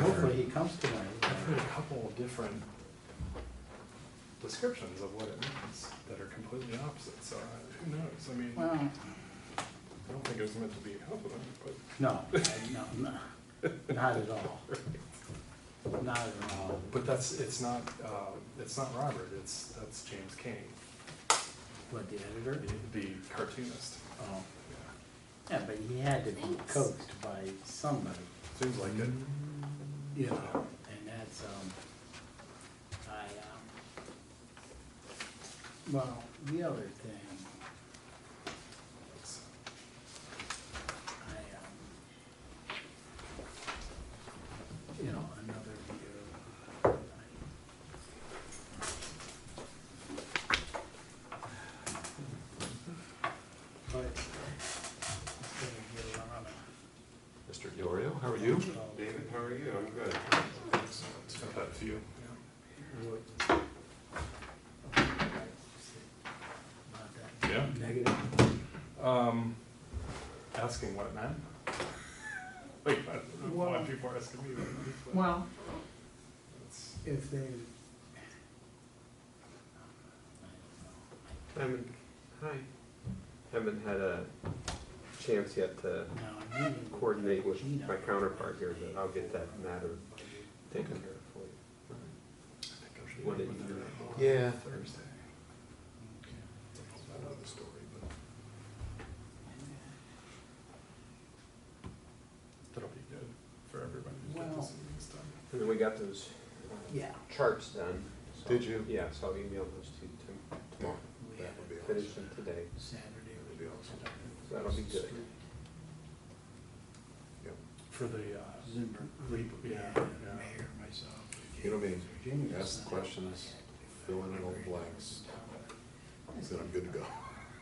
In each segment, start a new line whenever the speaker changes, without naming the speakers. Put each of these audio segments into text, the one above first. Hopefully he comes
I've heard
tonight.
a couple of different descriptions of what it means that are completely opposite, so I- who knows? I mean, I
Well,
don't think it was meant to be a compliment, but
no, no, no, not at all. Not at all.
But that's, it's not, uh, it's not Robert, it's, that's James Kane,
What, the editor?
the the cartoonist.
Oh,
Yeah.
yeah, but he had to be
Thanks.
coaxed by somebody,
Seems like it.
you know, and that's, um, I, um, well, the other thing,
It's-
I, um, you know, another view. But it's gonna get a lot of-
Mr. Diorio, how are you?
David, how are you? I'm good.
It's got that feel.
wood. About that
Yeah.
Negative.
Um, asking what it meant. Like, I don't know why
Well-
people are asking me that. but
Well,
it's-
if they.
Haven't, hi. Haven't had a chance yet to
Now, I'm meeting with
coordinate with
Gina.
my counterpart here, but I'll get that matter taken care of for you.
I think I should
What
do
did you-
that on
Yeah.
Thursday. I don't know the story, but that'll be good for everybody to get
Well-
this meeting's done.
And then we got those uh,
Yeah.
charts done. so-
Did you?
Yeah, so I'll email those to you tom- tomorrow.
We have
would be awesome.
Finish them today.
Saturday would be awesome.
So that'll be good.
For the, uh,
Zimmer.
re- yeah, yeah.
Mayor, myself.
You know me,
Virginia.
ask questions, fill in all the blanks, then I'm good to go.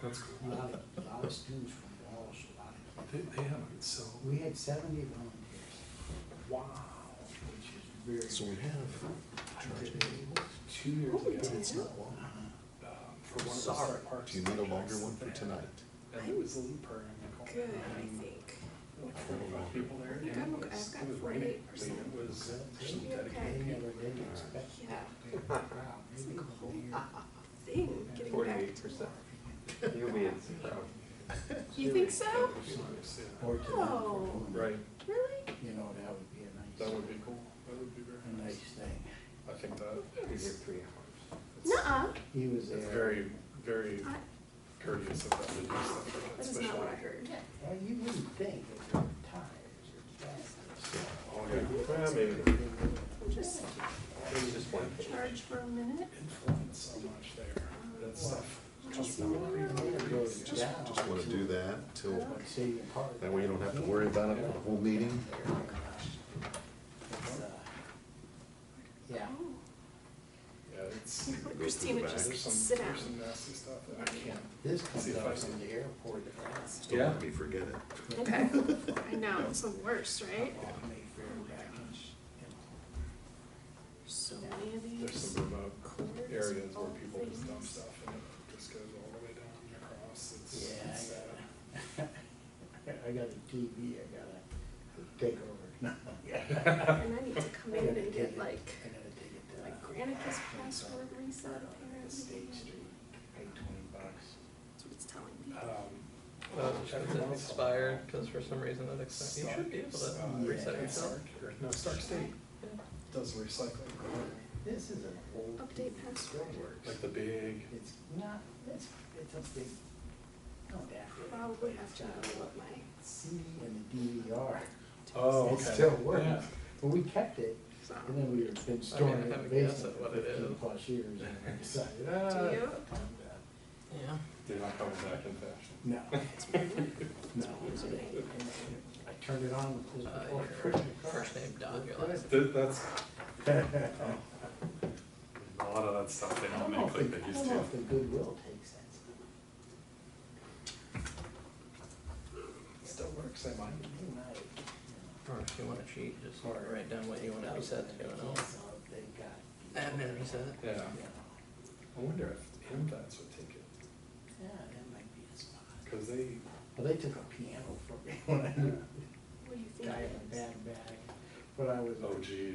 That's
A
cool.
lot of, a lot of students from Walsh, a lot
They, they haven't, so.
of, we had seventy volunteers,
Wow.
which is very.
So we have charging tables.
Two years ago.
It's not long.
um, For one of the site parks.
Do you need a longer
projects
one for
that they
tonight?
had. I think it was Leaper and Nicole.
Good, I
Um,
think.
like forty-five People there.
think
and
I'm
it
okay.
was-
I've got
It was
48
raining,
or
I mean, it was.
Should
be
dedicated
They
okay.
never
people.
did expect.
Yeah,
that.
it's
Maybe
like a
over
whole
here.
uh, thing, getting back.
Forty-eight percent. You'll be in proud.
You think so?
Or to them for
Oh.
women.
Right,
Really?
You know, that would be a
that
nice,
would be cool. That would be
a
very
nice
nice.
thing.
I think that
Be here
is.
three hours.
Nuh-uh,
He was there.
It's very, very
I-
courteous of them to do stuff like that,
that is not what I
especially.
heard.
Well, you wouldn't think that your tires are fast.
Oh, yeah.
Well, maybe,
Just
maybe just one.
charge for a minute.
influence so much there. That stuff comes
Just
from
one.
Just wanna do that till, that
That
way you don't have to worry about it for the whole meeting.
uh, Yeah.
Oh.
Yeah, it's.
Christina,
back.
just
There's some,
sit down.
there's some nasty stuff that I can't.
This
See
comes
if I
out
can-
from the airport. to France.
Don't let me forget it.
Okay, I know, it's the worst, right?
Off Mayfair back in-
So many of
There's
these.
some remote
cords,
areas
all
where people just dump
things.
stuff and it just goes all the way down and across. It's
Yeah,
it's sad.
I got a, I got a TV, I gotta take over. No, yeah.
And I need to come
I
in
gotta
and
take
get
it-
like,
I gotta take it to- uh,
like Granicus password reset
Right on
apparently.
State Street, pay twenty bucks.
That's what it's telling me.
Um,
Uh,
every
is it
once in a
expired?
while,
Because for some reason that expi- you
Stark-
should be able
uh,
to reset
yeah.
yeah,
yourself.
Stark- or No, Stark State does recycling.
This is an old.
Update
TV.
password.
It works.
Like the big,
It's not, it's, it's a big, not that big.
Probably have to know what my,
CD and the DVR.
oh,
It
okay.
still works,
Yeah.
but we kept it,
so,
and then we've been storing it in
have
the
a guess
basement
at
for
what it
fifteen
is.
plus years, and I decided,
do
ah.
you?
Yeah.
They're not coming back in fashion.
No,
It's weird.
no.
It's weird.
I turned it on, it was
Uh,
before
your
Christmas.
first name, Don, your last
Th- That's,
I
a lot of that stuff they don't
don't know
make
if
like
the,
they
I
used
don't know
to.
if the Goodwill takes that stuff.
Still works, I might.
Or if you want to cheat, just write down what you want to reset to and all.
uh,
Admin reset.
Yeah, I wonder if Invats would take it,
Yeah, that might be a spot.
cause they,
Well, they took a piano from me when I,
What do you think
guy
it
in a
is?
bad bag,
but I was.
Oh, geez.